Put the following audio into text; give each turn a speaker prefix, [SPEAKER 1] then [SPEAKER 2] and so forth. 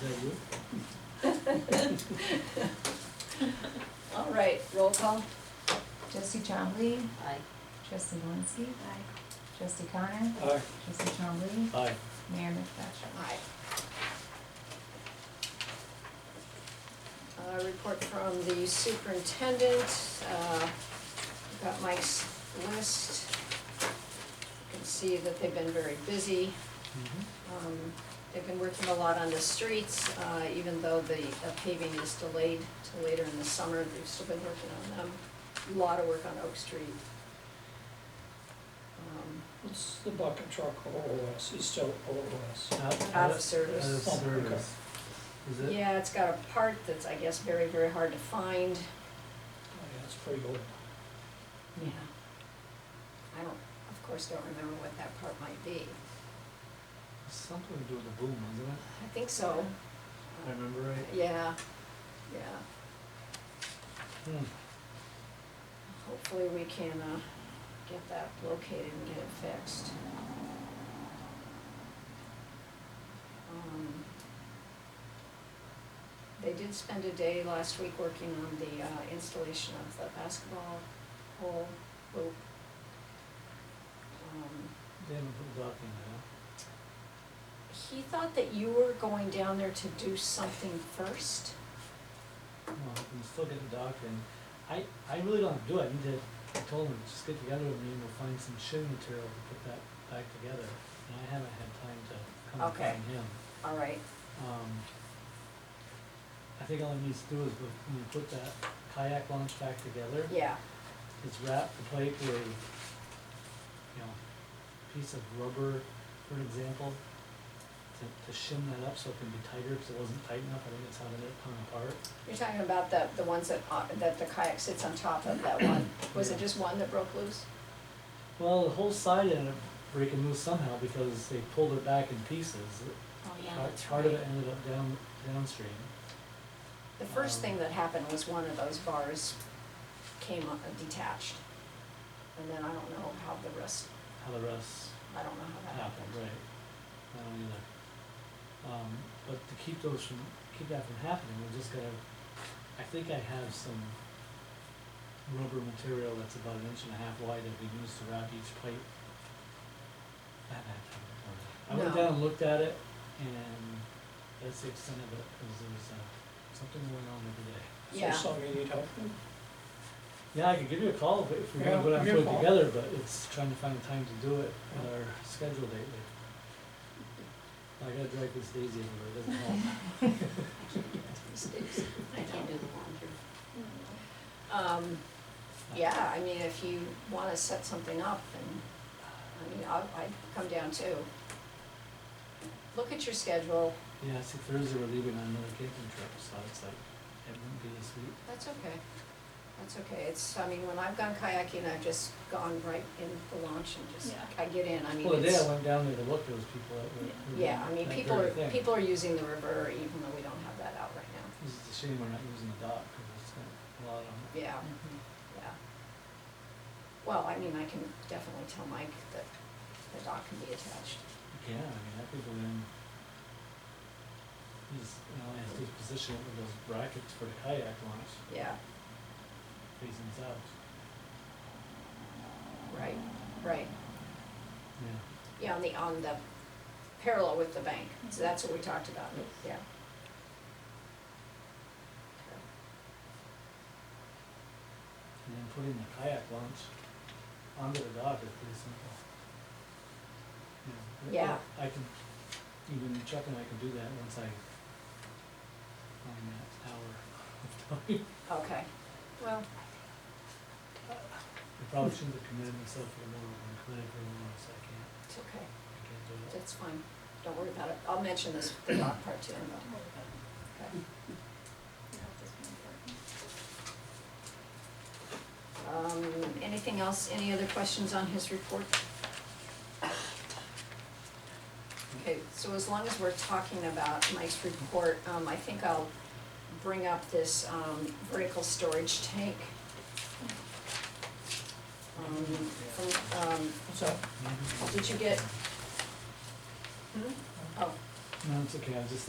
[SPEAKER 1] that you?
[SPEAKER 2] All right, roll call.
[SPEAKER 3] Trustee Chombley,
[SPEAKER 2] Aye.
[SPEAKER 3] trustee Malinsky. Trustee Connor,
[SPEAKER 1] Aye.
[SPEAKER 3] trustee Chombley,
[SPEAKER 1] Aye.
[SPEAKER 3] mayor McFetrich.
[SPEAKER 2] Aye. Uh, report from the superintendent, uh, got Mike's list. You Can see that they've been very busy.
[SPEAKER 1] Mm-hmm.
[SPEAKER 2] Um, They've been working a lot on the streets, uh, even though the uh, paving is delayed till later in the summer, they've still been working on them. A Lot of work on Oak Street. Um,
[SPEAKER 4] What's the bucket truck OOS, it's still OOS.
[SPEAKER 2] Out
[SPEAKER 1] Uh,
[SPEAKER 2] of service.
[SPEAKER 1] Out of service. Is it?
[SPEAKER 2] Yeah, it's got a part that's, I guess, very, very hard to find.
[SPEAKER 4] Oh, yeah, it's pretty old.
[SPEAKER 2] Yeah. I don't, of course, don't remember what that part might be.
[SPEAKER 1] Something to do with the boom, isn't it?
[SPEAKER 2] I think so. Uh,
[SPEAKER 1] If I remember right.
[SPEAKER 2] Yeah, yeah.
[SPEAKER 1] Hmm.
[SPEAKER 2] Hopefully we can, uh, get that located and get it fixed. Um, They did spend a day last week working on the, uh, installation of the basketball hole, hoop. Um,
[SPEAKER 1] They haven't put dock in
[SPEAKER 2] He thought that you were going down there to do something first.
[SPEAKER 1] there. Well, I can still get the dock in. I, I really don't have to do it. I need to, I told them, just get together with me and we'll find some shim material to put that back together. And I haven't had time to come and
[SPEAKER 2] Okay.
[SPEAKER 1] find him.
[SPEAKER 2] All right,
[SPEAKER 1] Um, I think all it needs to do is put- when you put that kayak launch back together.
[SPEAKER 2] yeah,
[SPEAKER 1] It's wrapped the plate with a, you know, piece of rubber, for example, to, to shim that up so it can be tighter, because it wasn't tight enough, I think that's how it ended up coming apart.
[SPEAKER 2] you're talking about the, the ones that, uh, that the kayak sits on top of, that one, was it
[SPEAKER 1] Yeah.
[SPEAKER 2] just one that broke loose?
[SPEAKER 1] Well, the whole side ended up breaking loose somehow because they pulled it back in pieces.
[SPEAKER 2] Oh,
[SPEAKER 1] Part- Part of it ended up down, downstream.
[SPEAKER 2] The first
[SPEAKER 1] um,
[SPEAKER 2] thing that happened was one of those bars came up detached. And then I don't know how the rest,
[SPEAKER 1] How the rest
[SPEAKER 2] I don't know how that
[SPEAKER 1] happen,
[SPEAKER 2] happened.
[SPEAKER 1] right? I don't either. Um, but to keep those from, keep that from happening, we're just gonna, I think I have some rubber material that's about an inch and a half wide that we use to wrap each pipe. I haven't had time to pour it. I went
[SPEAKER 2] No.
[SPEAKER 1] down and looked at it, and that's the extent of it, cause there was, uh, something going on the other day.
[SPEAKER 2] Yeah.
[SPEAKER 4] So something you need help with?
[SPEAKER 1] Yeah, I could give you a call if- if we're
[SPEAKER 4] Yeah,
[SPEAKER 1] gonna put
[SPEAKER 4] give me a
[SPEAKER 1] it
[SPEAKER 4] call.
[SPEAKER 1] together, but it's trying to find time to do it with our schedule lately. I gotta drag this daisy everywhere, it doesn't help.
[SPEAKER 2] I can't do the laundry. Um, yeah, I mean, if you wanna set something up and, I mean, I'll, I'd come down too. Look at your schedule,
[SPEAKER 1] Yeah, see Thursday we're leaving on another camping trip, so it's like, it wouldn't be this week.
[SPEAKER 2] that's okay. That's okay, it's, I mean, when I've gone kayaking, I've just gone right in the launch and just,
[SPEAKER 3] Yeah.
[SPEAKER 2] I get in, I mean,
[SPEAKER 1] Well, the
[SPEAKER 2] it's.
[SPEAKER 1] day I went down there to look, there was people that were. were doing
[SPEAKER 2] Yeah, I mean,
[SPEAKER 1] that
[SPEAKER 2] people are,
[SPEAKER 1] very thing.
[SPEAKER 2] people are using the river even though we don't have that out right now.
[SPEAKER 1] It's just a shame we're not using the dock, cause it's got a lot on it.
[SPEAKER 2] Yeah, yeah. Well, I mean, I can definitely tell Mike that the dock can be attached.
[SPEAKER 1] Yeah, I mean, that could go in. He's, you know, has to position it with those brackets for the kayak launch
[SPEAKER 2] Yeah,
[SPEAKER 1] facing south.
[SPEAKER 2] right, right.
[SPEAKER 1] Yeah.
[SPEAKER 2] Yeah, on the, on the parallel with the bank. So that's what we talked about, yeah.
[SPEAKER 1] And then putting the kayak launch onto the dock is pretty simple. You know, but- but
[SPEAKER 2] Yeah.
[SPEAKER 1] I can, even Chuck and I can do that once I find that hour of time.
[SPEAKER 2] Okay, well,
[SPEAKER 1] I probably shouldn't have committed myself for the moment, I'm committed for the moment, so I can't,
[SPEAKER 2] it's okay,
[SPEAKER 1] I can't do it.
[SPEAKER 2] that's fine. Don't worry about it. I'll mention this, the dock part to him though. Okay. Um, anything else, any other questions on his report? Okay, so as long as we're talking about Mike's report, um, I think I'll bring up this, um, vertical storage tank. Um, from, um,
[SPEAKER 4] What's that?
[SPEAKER 1] Maybe-
[SPEAKER 2] did you get? Hmm? Oh.
[SPEAKER 1] No, it's okay, I was just